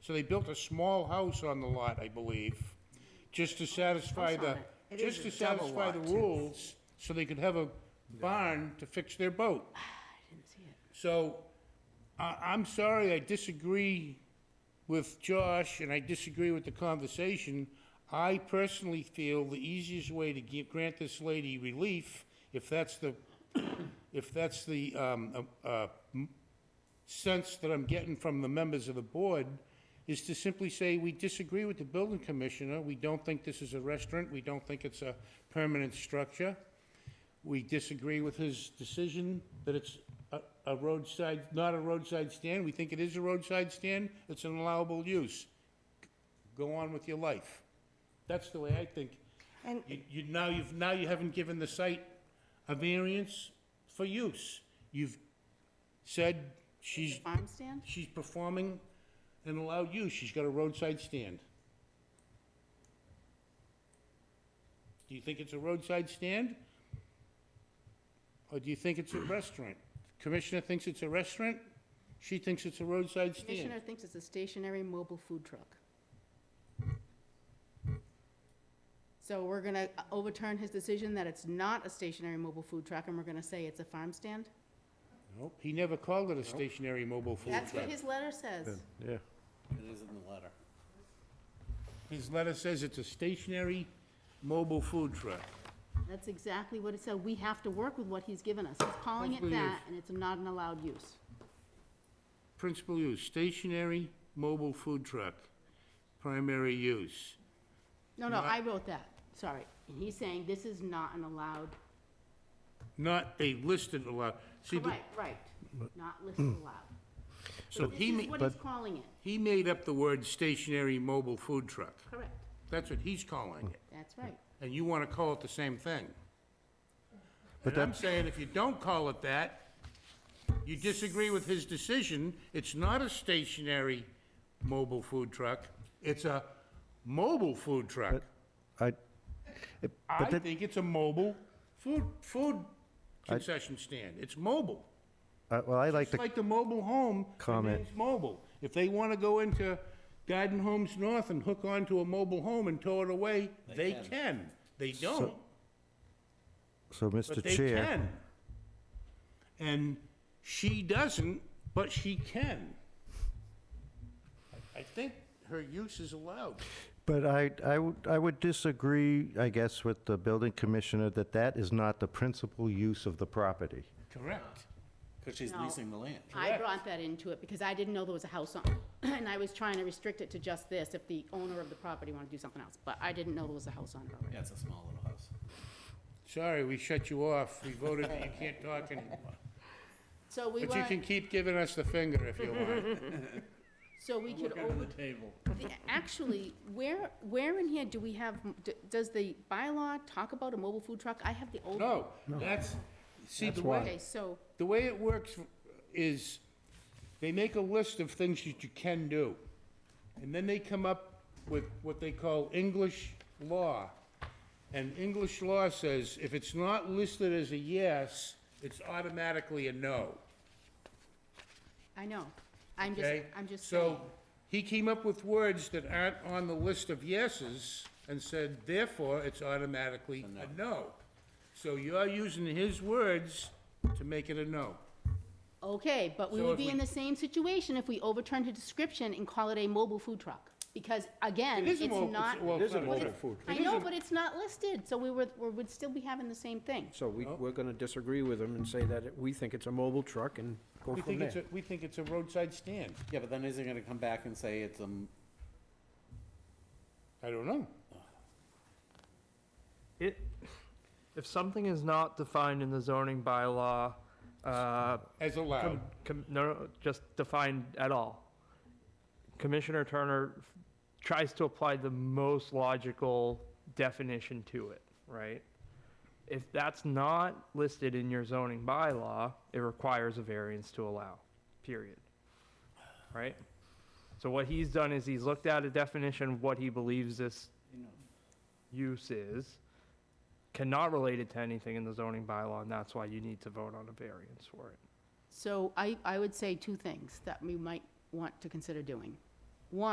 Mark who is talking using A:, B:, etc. A: So they built a small house on the lot, I believe, just to satisfy
B: House on
A: the,
B: it. It
A: just
B: is
A: to
B: a double
A: satisfy the
B: lot, too.
A: rules, so they could have a barn to fix their boat.
B: Ah,
A: So, I, I'm sorry, I disagree with Josh, and I disagree with the conversation. I personally feel the easiest way to give, grant this lady relief, if that's the, if that's the, um, uh, uh, m- sense that I'm getting from the members of the board, is to simply say, we disagree with the building commissioner, we don't think this is a restaurant, we don't think it's a permanent structure. We disagree with his decision that it's a- a roadside, not a roadside stand. We think it is a roadside stand. It's an allowable use. Go on with your life. That's the way I think.
B: And
A: You, you, now you've, now you haven't given the site a variance for use. You've said she's,
B: farm stand?
A: she's performing an allowed use. She's got a roadside stand. Do you think it's a roadside stand? Or do you think it's a restaurant? Commissioner thinks it's a restaurant, she thinks it's a roadside stand.
B: Commissioner thinks it's a stationary mobile food truck. So we're gonna uh, overturn his decision that it's not a stationary mobile food truck, and we're gonna say it's a farm stand?
A: Nope, he never called it a stationary mobile food
B: That's
A: truck.
B: what his letter says.
C: Yeah.
D: It is in the letter.
A: His letter says it's a stationary mobile food truck.
B: That's exactly what it said. We have to work with what he's given us. He's calling it
A: Principal use.
B: that, and it's not an allowed use.
A: Principal use, stationary mobile food truck, primary use.
B: No, no,
A: Not-
B: I wrote that, sorry. And he's saying this is not an allowed,
A: Not a listed allowed. See, the-
B: right, right, not listed allowed.
A: So
B: But
A: he
B: This
A: ma-
B: is what he's calling it,
A: he made up the word stationary mobile food truck.
B: correct.
A: That's what he's calling it.
B: That's right.
A: And you want to call it the same thing.
C: But
A: But I'm
C: that-
A: saying if you don't call it that, you disagree with his decision, it's not a stationary mobile food truck, it's a mobile food truck.
C: I, it-
A: I
C: but that,
A: think it's a mobile food, food concession stand. It's mobile.
C: uh, well, I like
A: It's
C: the,
A: like the mobile home
C: Comment.
A: remains mobile. If they want to go into Garden Homes North and hook onto a mobile home and tow it away, they can. They don't,
C: so, Mr.
A: but they
C: Chair,
A: can. And she doesn't, but she can. I- I think her use is allowed.
C: but I, I would, I would disagree, I guess, with the building commissioner that that is not the principal use of the property.
A: Correct.
D: Because she's
B: No.
D: leasing the land.
B: I brought that into it because I didn't know there was a house on, and I was trying to restrict it to just this if the owner of the property wanted to do something else, but I didn't know there was a house on it already.
D: Yeah, it's a small little house.
A: Sorry, we shut you off. We voted that you can't talk anymore.
B: So we
A: But you Mm-hmm. can
B: want,
A: keep giving us the finger if you want.
B: so we could over.
D: the table.
B: The- Actually, where, where in here do we have, d- does the bylaw talk about a mobile food truck? I have the old.
A: No, that's, see, the
C: That's
A: way,
C: why.
B: Okay, so,
A: the way it works is they make a list of things that you can do. And then they come up with what they call English law. And English law says if it's not listed as a yes, it's automatically a no,
B: I know, I'm just,
A: okay?
B: I'm just saying.
A: So he came up with words that aren't on the list of yeses and said, therefore, it's automatically a no. So you're using his words to make it a no.
B: Okay, but we
A: So
B: would
A: if
B: be in
A: we-
B: the same situation if we overturned the description and call it a mobile food truck. Because again,
A: It is
B: it's
A: a mobile,
B: not,
A: well, it's not a
B: but
A: mobile
B: it's-
A: food
B: I know, but it's not listed, so we would, we would still be having the same thing.
E: So we,
A: Oh.
E: we're gonna disagree with him and say that it- we think it's a mobile truck and go
A: We
E: from
A: think it's,
E: there.
A: a we think it's a roadside stand.
D: Yeah, but then is it gonna come back and say it's a, m-
A: I don't know.
F: It, if something is not defined in the zoning bylaw, uh,
A: As
F: com-
A: allowed.
F: com- no, no, just defined at all. Commissioner Turner f- tries to apply the most logical definition to it, right? If that's not listed in your zoning bylaw, it requires a variance to allow, period. Right? So what he's done is he's looked at a definition of what he believes this use is, cannot relate it to anything in the zoning bylaw, and that's why you need to vote on a variance for it.
B: So I, I would say two things that we might want to consider doing.